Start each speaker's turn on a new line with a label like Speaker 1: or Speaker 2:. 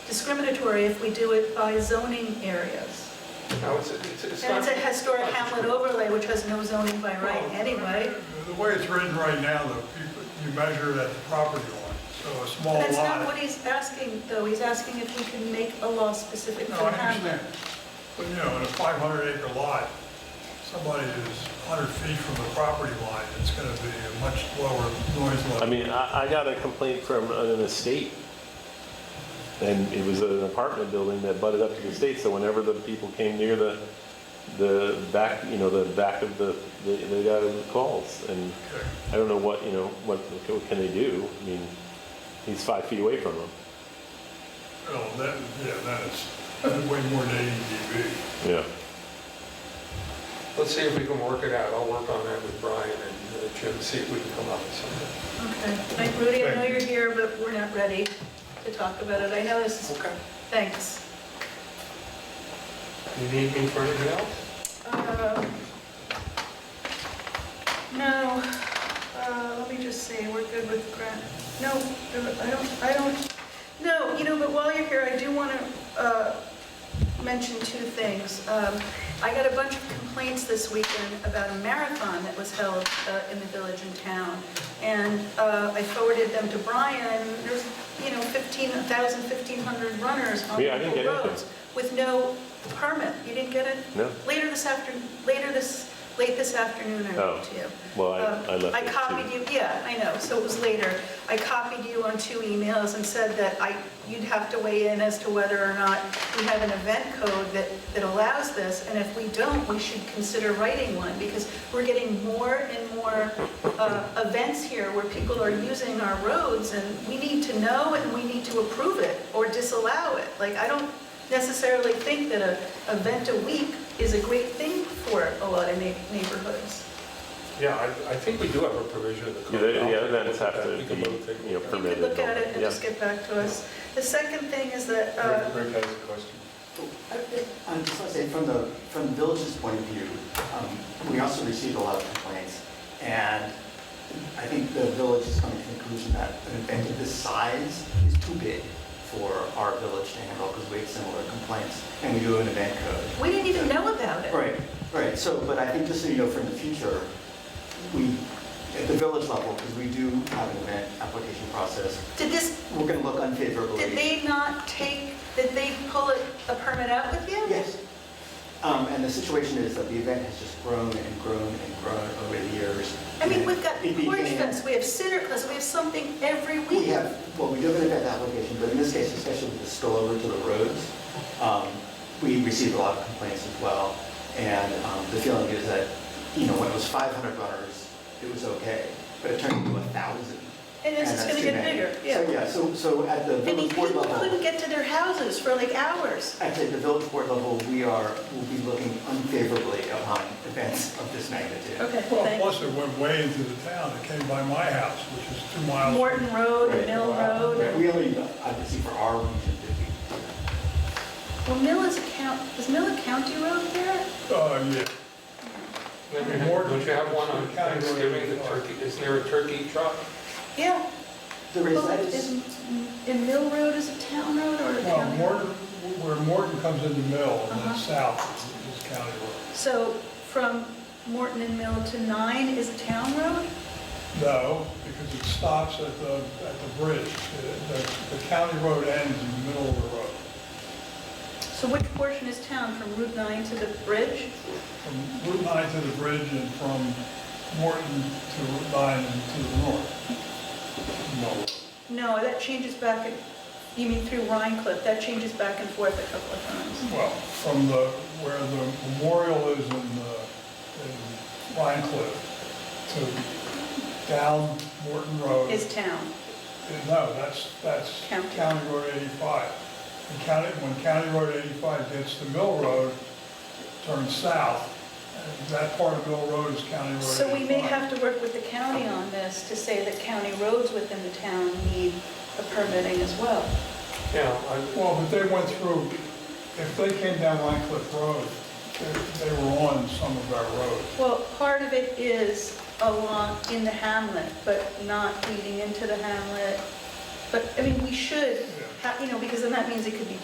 Speaker 1: discriminatory if we do it by zoning areas.
Speaker 2: No, it's, it's, it's
Speaker 1: And it's
Speaker 2: not.
Speaker 1: a historic hamlet overlay, which has no zoning by right anyway.
Speaker 3: The way it's written right now, though, people- you measure it at the property line, so a small
Speaker 1: That's not what
Speaker 3: lot.
Speaker 1: he's asking, though. He's asking if we can make a law specific to
Speaker 3: No, I
Speaker 1: hamlet.
Speaker 3: understand. But, you know, in a 500 acre lot, somebody who's 100 feet from the property line, it's going to be a much lower noise
Speaker 4: I
Speaker 3: level.
Speaker 4: mean, I, I got a complaint from an estate, and it was an apartment building that butted up to the estate, so whenever the people came near the, the back, you know, the back of the, they, they got calls, and
Speaker 3: Okay.
Speaker 4: I don't know what, you know, what, what can they do? I mean, he's five feet away from them.
Speaker 3: Well, that, yeah, that is that's way more than 80 dB.
Speaker 4: Yeah.
Speaker 2: Let's see if we can work it out. I'll work on that with Brian and uh, Jim, see if we can come up with something.
Speaker 1: Okay. Thank Rudy, I know you're here, but we're not ready to talk about it. I know this is,
Speaker 2: Okay.
Speaker 1: thanks.
Speaker 2: You need me for anything else?
Speaker 1: Um, No, uh, let me just see, we're good with grant, no, I don't, I don't, no, you know, but while you're here, I do want to mention two things. Um, I got a bunch of complaints this weekend about a marathon that was held uh, in the village and town, and uh, I forwarded them to Brian, there's, you know, 15,000, 1,500 runners on
Speaker 4: Yeah, I didn't
Speaker 1: local
Speaker 4: get anything.
Speaker 1: roads with no permit, you didn't get it?
Speaker 4: No.
Speaker 1: Later this after, later this, late this afternoon, I
Speaker 4: Oh.
Speaker 1: wrote to you.
Speaker 4: Well, I,
Speaker 1: Um,
Speaker 4: I left. it
Speaker 1: I
Speaker 4: too.
Speaker 1: copied you, yeah, I know, so it was later. I copied you on two emails and said that I, you'd have to weigh in as to whether or not we have an event code that, that allows this, and if we don't, we should consider writing one, because we're getting more and more uh, events here where people are using our roads, and we need to know and we need to approve it or disallow it. Like, I don't necessarily think that a event a week is a great thing for a lot of neigh- neighborhoods.
Speaker 2: Yeah, I, I think we do have a provision in the
Speaker 4: Yeah,
Speaker 2: code.
Speaker 4: they-
Speaker 2: I'll
Speaker 4: yeah,
Speaker 2: take a
Speaker 4: events
Speaker 2: look
Speaker 4: have
Speaker 2: at that.
Speaker 4: to
Speaker 2: We can
Speaker 4: be,
Speaker 2: both take a look.
Speaker 4: you know,
Speaker 1: You could
Speaker 4: permitted.
Speaker 1: look at it and
Speaker 4: Yeah.
Speaker 1: just get back to us. The second thing is that, uh,
Speaker 5: Rick has a question.
Speaker 6: I'm Um, just gonna say, from the, from the village's point of view, um, we also received a lot of complaints, and I think the village is coming to the conclusion that an event of this size is too big for our village to handle, because we have similar complaints, and we do an event code.
Speaker 1: we didn't even know about it.
Speaker 6: Right, right, so, but I think just so you know, for the future, we, at the village level, because we do have an event application process,
Speaker 1: Did this,
Speaker 6: we're gonna look unfavorably.
Speaker 1: did they not take, did they pull it- a permit out with you?
Speaker 6: Yes. Um, And the situation is that the event has just grown and grown and grown over the years.
Speaker 1: I mean, we've got
Speaker 6: It began-
Speaker 1: porch fence, we have sitter class, we have something every
Speaker 6: We
Speaker 1: week.
Speaker 6: have, well, we do have an event application, but in this case, especially with the spillover to the roads, um, we received a lot of complaints as well. And um, the feeling is that, you know, when it was 500 runners, it was okay, but it turned into 1,000.
Speaker 1: And it's just
Speaker 6: that's
Speaker 1: gonna
Speaker 6: too
Speaker 1: get
Speaker 6: many.
Speaker 1: bigger,
Speaker 6: So,
Speaker 1: yeah.
Speaker 6: yeah, so, so at the
Speaker 1: I mean,
Speaker 6: village board
Speaker 1: people
Speaker 6: level.
Speaker 1: couldn't get to their houses for like hours.
Speaker 6: At the village board level, we are, will be looking unfavorably upon events of this magnitude.
Speaker 1: Okay,
Speaker 3: Well,
Speaker 1: thanks.
Speaker 3: plus it went way into the town, it came by my house, which is two miles.
Speaker 1: Morton Road, and Mill
Speaker 6: Right,
Speaker 1: Road.
Speaker 6: We only, obviously for our region, did we,
Speaker 1: Well, Mill is a count, is Mill a county road there?
Speaker 3: Uh, yeah.
Speaker 2: Don't you have- Don't you have one on Thanksgiving, the turkey, isn't there a turkey truck?
Speaker 1: Yeah.
Speaker 6: there is,
Speaker 1: Well,
Speaker 6: that is,
Speaker 1: is, and Mill Road is a town road or a
Speaker 3: Well,
Speaker 1: county? road?
Speaker 3: Morton, where Morton comes into Mill, and
Speaker 1: Uh-huh.
Speaker 3: then south is County Road.
Speaker 1: So from Morton and Mill to 9 is a town road?
Speaker 3: No, because it stops at the, at the bridge. The, the- the county road ends in the middle of the road.
Speaker 1: So which portion is town, from Route 9 to the bridge?
Speaker 3: From Route 9 to the bridge and from Morton to Route 9 and to the north. No.
Speaker 1: No, that changes back, and- you mean through Rhine Cliff, that changes back and forth a couple of times.
Speaker 3: Well, from the, where the memorial is in, uh, in Pine Cliff to down Morton Road.
Speaker 1: Is town.
Speaker 3: No, that's, that's
Speaker 1: County.
Speaker 3: County Road 85. And county, when County Road 85 gets to Mill Road, turns south, and that part of Mill Road is County Road 85.
Speaker 1: So we may have to work with the county on this to say that county roads within the town need a permitting as well.
Speaker 2: Yeah, I-
Speaker 3: Well, but they went through, if they came down Line Cliff Road, they, they were on some of our roads.
Speaker 1: Well, part of it is along in the hamlet, but not leading into the hamlet. But, I mean, we should
Speaker 3: Yeah.
Speaker 1: How- You know, because then that means it could be